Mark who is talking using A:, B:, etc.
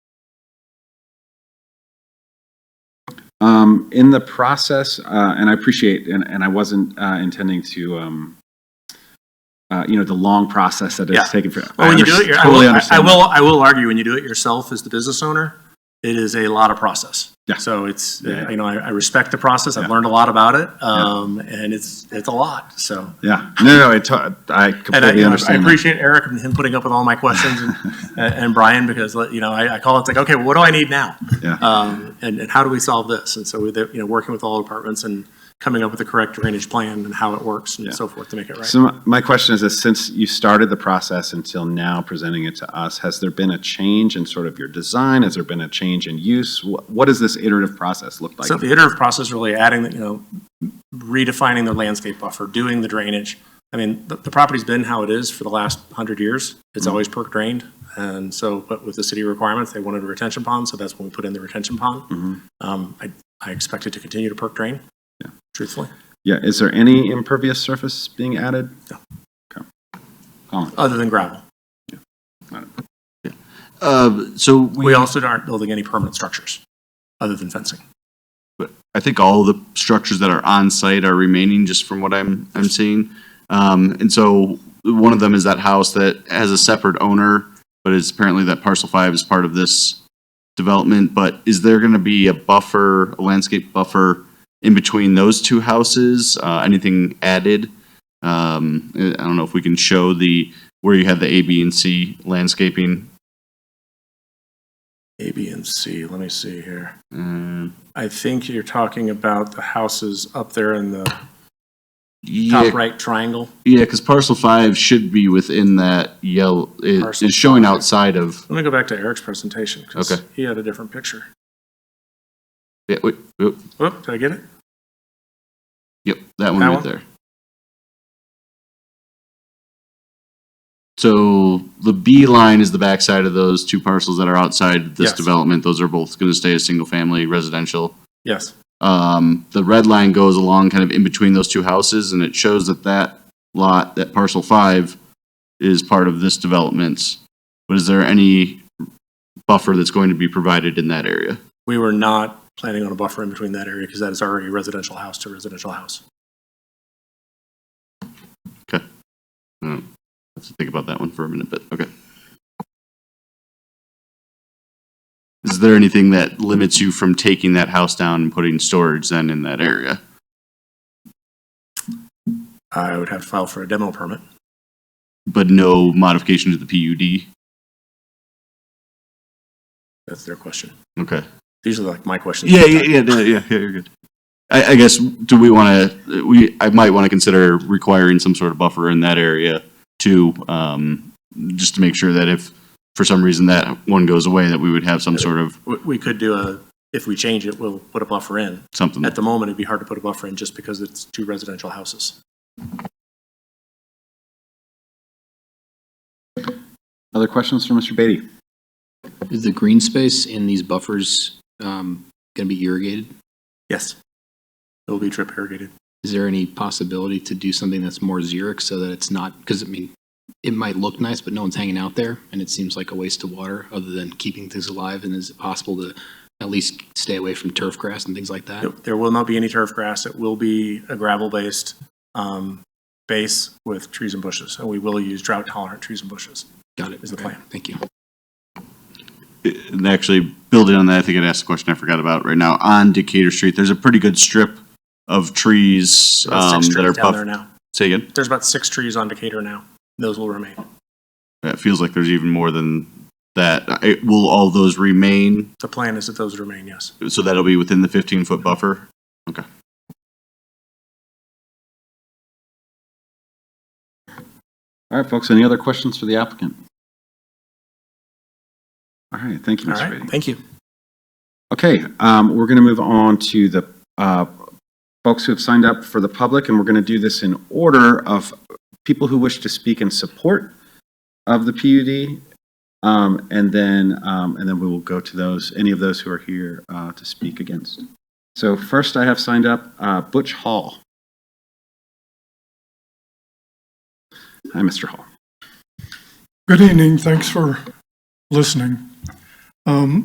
A: Um, in the process, uh, and I appreciate, and, and I wasn't uh, intending to, um, uh, you know, the long process that
B: Yeah. Oh,
A: it's taken for.
B: Well,
A: I
B: when you do it,
A: under-
B: your- I
A: totally
B: will, I- I
A: understand.
B: will, I will argue, when you do it yourself as the business owner, it is a lot of process.
A: Yeah.
B: So it's,
A: Yeah.
B: you know, I, I respect the process. I've
A: Yeah.
B: learned a lot about it. Um, and it's, it's a lot, so.
A: Yeah, no, no, I to- I
B: And I,
A: completely
B: you know, I
A: understand. that.
B: appreciate Eric and him putting up with all my questions and, and and Brian, because, like, you know, I, I call, it's like, okay, well, what do I need now?
A: Yeah.
B: Um, and, and how do we solve this? And so with, it, you know, working with all departments and coming up with the correct drainage plan and how it works and so forth to make it right.
A: So my- my question is this, since you started the process until now presenting it to us, has there been a change in sort of your design? Has there been a change in use? Wh- What does this iterative process look like?
B: So the iterative process is really adding, you know, redefining the landscape buffer, doing the drainage. I mean, the, the property's been how it is for the last hundred years. It's always perk drained. And so, but with the city requirements, they wanted a retention pond, so that's when we put in the retention pond.
A: Mhm.
B: Um, I, I expect it to continue to perk drain, truthfully.
A: Yeah, is there any impervious surface being added?
B: No.
A: Okay. Colin?
B: other than gravel.
C: Uh, So
B: We
C: we,
B: also aren't building any permanent structures other than fencing.
C: I think all the structures that are on site are remaining, just from what I'm, I'm seeing. Um, And so one of them is that house that has a separate owner, but it's apparently that parcel five is part of this development. But is there going to be a buffer, a landscape buffer in between those two houses? Uh, Anything added? Um, I don't know if we can show the, where you had the A, B, and C landscaping.
B: A, B, and C, let me see here.
C: Uh,
B: I think you're talking about the houses up there in the
C: yeah,
B: top right triangle.
C: Yeah, because parcel five should be within that yellow, it
B: Parcel
C: is showing
B: five.
C: outside of,
B: Let me go back to Eric's presentation, because
C: Okay.
B: he had a different picture.
C: yeah, wait, whoop,
B: Whoop, did I get it?
C: yep, that one
B: That
C: right
B: one?
C: there. So the B line is the backside of those two parcels that are outside this
B: Yes.
C: development. Those are both going to stay as single-family residential.
B: Yes.
C: Um, the red line goes along kind of in between those two houses, and it shows that that lot, that parcel five, is part of this development. But is there any buffer that's going to be provided in that area?
B: We were not planning on a buffer in between that area, because that is already residential house to residential house.
C: have to think about that one for a minute, but okay. Is there anything that limits you from taking that house down and putting storage then in that area?
B: I would have to file for a demo permit.
C: But no modification to the
B: That's their question.
C: PUD? Okay.
B: These are like my questions.
C: Yeah, yeah, yeah, no, yeah, yeah, you're good. I, I guess, do we want to, we, I might want to consider requiring some sort of buffer in that area too, um, just to make sure that if for some reason that one goes away, that we would have some sort of
B: We, we could do a, if we change it, we'll put a buffer in.
C: something.
B: At the moment, it'd be hard to put a buffer in just because it's two residential houses.
A: Other questions for Mr. Beatty?
D: Is the green space in these buffers um, going to be irrigated?
B: Yes. It'll be drip irrigated.
D: Is there any possibility to do something that's more xeric so that it's not, because I mean, it might look nice, but no one's hanging out there, and it seems like a waste of water other than keeping things alive, and is it possible to at least stay away from turf grass and things like that?
B: There- There will not be any turf grass. It will be a gravel-based um, base with trees and bushes, and we will use drought-tolerant trees and bushes.
D: Got it.
B: Is the
D: Okay.
B: plan.
D: Thank you.
C: And actually, building on that, I think I'd asked a question I forgot about right now. On Decatur Street, there's a pretty good strip of trees
B: About
C: um,
B: six
C: that are
B: trees down there
C: buff.
B: now.
C: Say again?
B: There's about six trees on Decatur now. Those will remain.
C: It feels like there's even more than that. I- Will all those remain?
B: The plan is that those remain, yes.
C: So that'll be within the 15-foot buffer?
A: All right, folks, any other questions for the applicant? All right, thank you,
B: All
A: Mr.
B: right,
A: Beatty.
B: thank you.
A: Okay, um, we're going to move on to the uh, folks who have signed up for the public, and we're going to do this in order of people who wish to speak in support of the PUD, um, and then, um, and then we will go to those, any of those who are here uh, to speak against. So first, I have signed up uh, Butch Hall. Hi, Mr. Hall.
E: Good evening, thanks for listening. Um,